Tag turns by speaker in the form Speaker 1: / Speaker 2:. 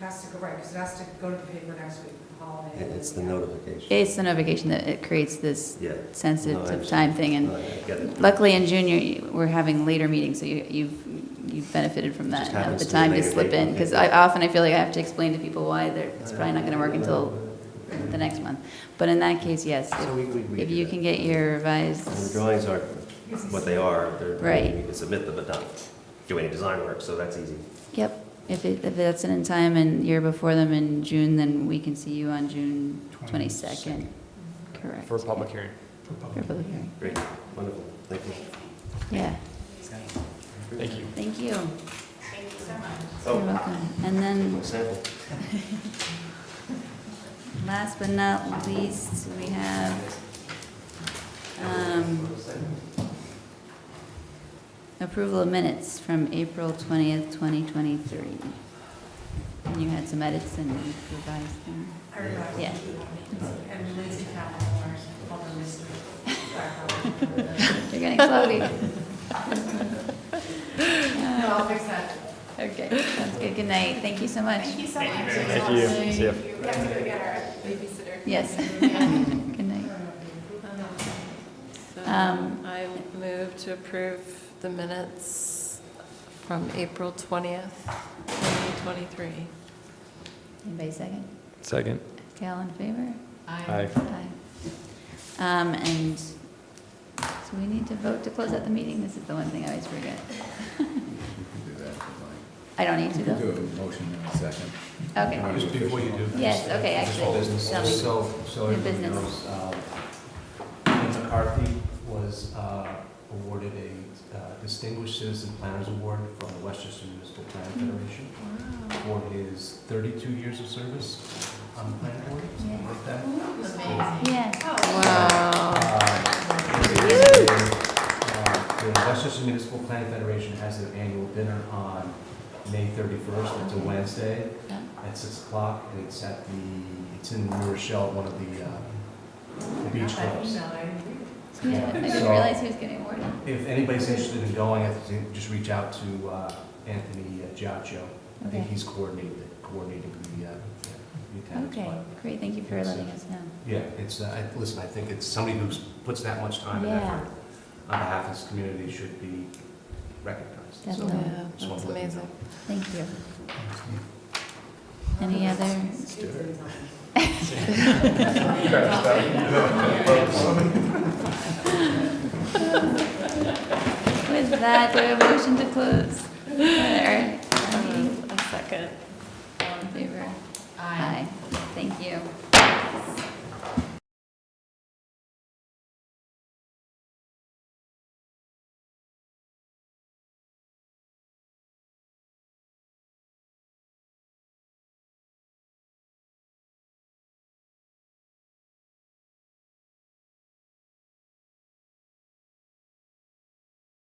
Speaker 1: Has to go, right, because it has to go to the paper next week, holiday.
Speaker 2: And it's the notification.
Speaker 3: It's the notification that it creates this
Speaker 2: Yeah. No, I
Speaker 3: sensitive
Speaker 2: understand.
Speaker 3: time thing,
Speaker 2: No,
Speaker 3: and
Speaker 2: I get it.
Speaker 3: luckily in June, you- we're having later meetings, so you- you've, you've benefited from that.
Speaker 2: Just
Speaker 3: and have
Speaker 2: happens
Speaker 3: The
Speaker 2: to be a
Speaker 3: time to
Speaker 2: later
Speaker 3: slip
Speaker 2: date,
Speaker 3: in,
Speaker 2: okay.
Speaker 3: because I, often I feel like I have to explain to people why they're, it's probably not gonna work until the next month. But in that case, yes,
Speaker 2: So we- we- we
Speaker 3: if- if
Speaker 2: do
Speaker 3: you
Speaker 2: that.
Speaker 3: can get your revised,
Speaker 2: And The drawings aren't what they are. They're,
Speaker 3: Right.
Speaker 2: you can submit them, but not do any design work, so that's easy.
Speaker 3: yep, if it, if that's in time and you're before them in June, then we can see you on June twenty-second, correct?
Speaker 4: For a public hearing.
Speaker 3: For public hearing,
Speaker 2: Great, wonderful, thank you.
Speaker 3: yeah,
Speaker 4: Thank you.
Speaker 3: thank you,
Speaker 2: Oh.
Speaker 5: Thank you so much.
Speaker 3: you're welcome. And then
Speaker 2: My Oh, sample.
Speaker 3: Last but not least, we have um, approval of minutes from April 20th, 2023. And you had some edits and you revised them.
Speaker 1: I realize.
Speaker 3: Yeah.
Speaker 1: And Lindsay Campbell, our other mystery.
Speaker 3: You're getting cloudy.
Speaker 1: No, I'll fix that.
Speaker 3: Uh, Okay, sounds good. Good night. Thank you so much.
Speaker 5: Thank you so much.
Speaker 4: Thank you. See ya.
Speaker 5: We have to go get our babysitter.
Speaker 3: Yes. Good night.
Speaker 6: So
Speaker 3: Um,
Speaker 6: I move to approve the minutes from April 20th, 2023.
Speaker 3: Anybody second?
Speaker 4: Second.
Speaker 3: Okay, all in favor?
Speaker 4: Aye.
Speaker 3: Aye. Um, and so we need to vote to close out the meeting. This is the one thing I always forget. I don't need to
Speaker 7: Do
Speaker 3: though.
Speaker 7: a motion in a second.
Speaker 3: Okay.
Speaker 8: Just before you do.
Speaker 3: Yes, okay, actually. tell me.
Speaker 8: So, so
Speaker 3: New
Speaker 8: everybody
Speaker 3: business.
Speaker 8: knows, um, Ian McCarthy was uh, awarded a uh, Distinguished Citizen Planners Award from the Westchester Municipal Planning Federation for his 32 years of service on the planning board, something like that.
Speaker 5: Amazing.
Speaker 3: Yeah.
Speaker 7: Oh.
Speaker 6: Wow.
Speaker 8: Uh, The Westchester Municipal Planning Federation has their annual dinner on May 31st, it's a Wednesday,
Speaker 3: Yeah.
Speaker 8: at 6 o'clock, and it's at the, it's in New Rochelle, one of the uh, beach clubs.
Speaker 3: Yeah, I didn't
Speaker 8: So-
Speaker 3: realize he was getting awarded.
Speaker 8: If anybody's interested in going, I think just reach out to uh, Anthony Giaccio. I
Speaker 3: Okay.
Speaker 8: think he's coordinated, coordinating the uh, the attendance.
Speaker 3: Okay,
Speaker 8: but-
Speaker 3: great, thank you for
Speaker 8: Yes,
Speaker 3: letting
Speaker 8: uh,
Speaker 3: us know.
Speaker 8: Yeah, it's, uh, I- listen, I think it's somebody who puts that much time and
Speaker 3: Yeah.
Speaker 8: effort on behalf of his community should be recognized. So,
Speaker 3: Definitely.
Speaker 6: Yeah,
Speaker 8: just wanted
Speaker 6: that's
Speaker 8: to let you know.
Speaker 6: amazing.
Speaker 3: Thank you. Any other? With that, do I have a motion to close? Or, uh, meeting?
Speaker 6: Um, A second.
Speaker 3: All in favor?
Speaker 5: Aye.
Speaker 3: Thank you.